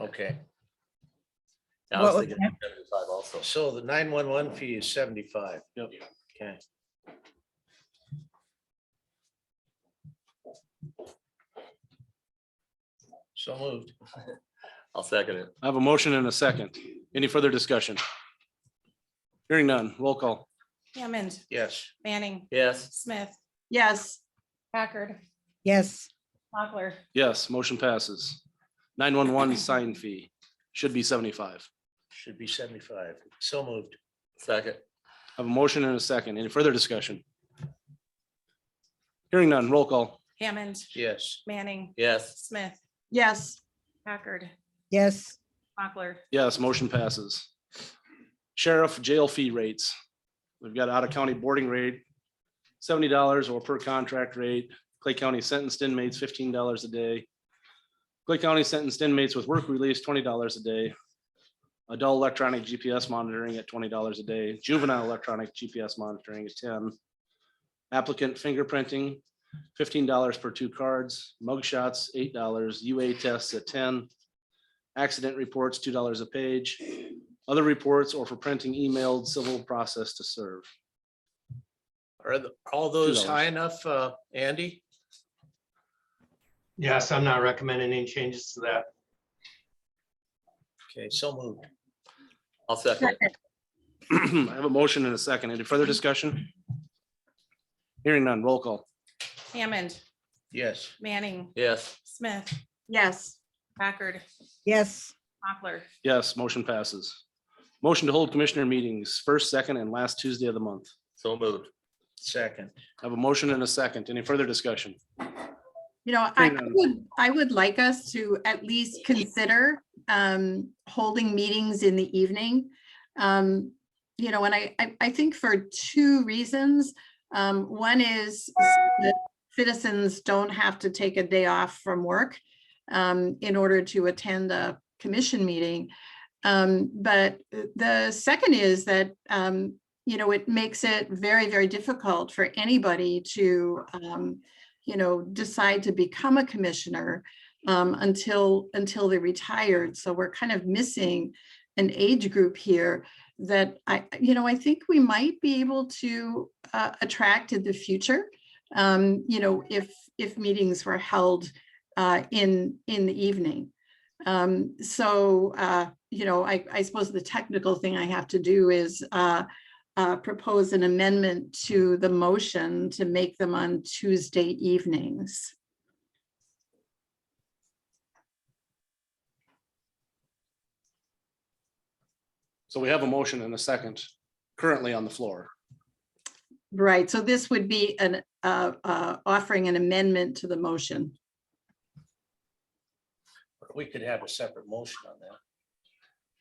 Okay, I was What was thinking that? 75 also. so the nine one one fee is seventy-five. Yep. Okay. So moved. I'll second it. I have a motion and a second. Any further discussion? Hearing none, roll call. Hammond, Yes, Manning, Yes, Smith, yes, Packard, yes, Mochler, Yes, motion passes. Nine-one-one sign fee should be seventy-five. should be seventy-five. So moved. second. I have a motion and a second. Any further discussion? Hearing none, roll call. Hammond, Yes, Manning, Yes, Smith, yes, Packard, yes, Mochler, Yes, motion passes. Sheriff jail fee rates. We've got out-of-county boarding rate, seventy dollars or per contract rate. Clay County sentenced inmates, fifteen dollars a day. Clay County sentenced inmates with work release, twenty dollars a day. Adult electronic GPS monitoring at twenty dollars a day. Juvenile electronic GPS monitoring is ten. Applicant fingerprinting, fifteen dollars per two cards. Mug shots, eight dollars. UA tests at ten. Accident reports, two dollars a page. Other reports or for printing emailed civil process to serve. are the- all those $2. high enough, uh, Andy? Yes, I'm not recommending any changes to that. Okay, so moved. I'll second it. I have a motion and a second. Any further discussion? Hearing none, roll call. Hammond, Yes, Manning, Yes, Smith, yes, Packard, yes, Mochler, Yes, motion passes. Motion to hold commissioner meetings first, second, and last Tuesday of the month. so moved. second. I have a motion and a second. Any further discussion? you know, I Hang on. would, I would like us to at least consider um holding meetings in the evening. Um, you know, and I, I, I think for two reasons. Um, one is that citizens don't have to take a day off from work um, in order to attend a commission meeting. Um, but the second is that, um, you know, it makes it very, very difficult for anybody to, um, you know, decide to become a commissioner um, until, until they're retired. So we're kind of missing an age group here that I, you know, I think we might be able to uh, attract in the future. Um, you know, if, if meetings were held uh, in, in the evening. Um, so, uh, you know, I, I suppose the technical thing I have to do is uh, uh, propose an amendment to the motion to make them on Tuesday evenings. So we have a motion and a second currently on the floor. Right, so this would be an, uh, uh, offering an amendment to the motion. We could have a separate motion on that.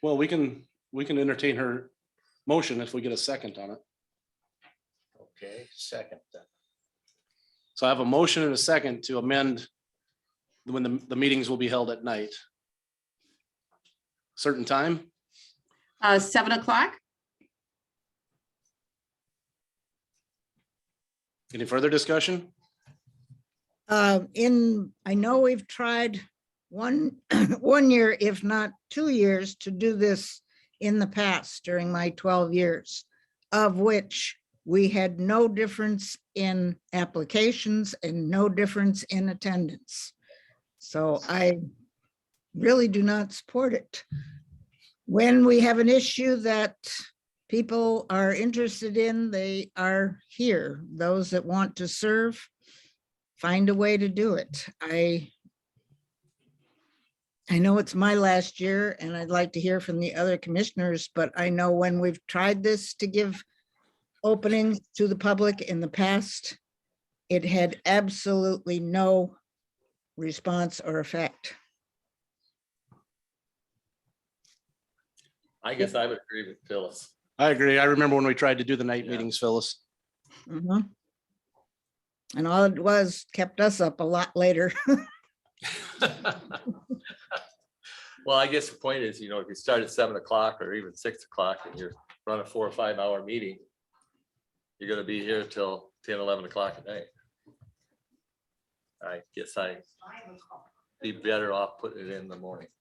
Well, we can, we can entertain her motion if we get a second on it. Okay, second. then. So I have a motion and a second to amend when the, the meetings will be held at night. Certain time, Uh, seven o'clock? any further discussion? um, in, I know we've tried one, one year, if not two years, to do this in the past during my twelve years, of which we had no difference in applications and no difference in attendance. So I really do not support it. When we have an issue that people are interested in, they are here. Those that want to serve find a way to do it. I I know it's my last year and I'd like to hear from the other commissioners, but I know when we've tried this to give openings to the public in the past, it had absolutely no response or effect. I guess I would agree with Phyllis. I agree. I remember when we tried to do the night Yeah. meetings, Phyllis. Mhm. And all it was kept us up a lot later. Well, I guess the point is, you know, if you start at seven o'clock or even six o'clock and you're running a four or five hour meeting, you're gonna be here till 10, 11 o'clock at night. I guess I be better off putting it in the morning.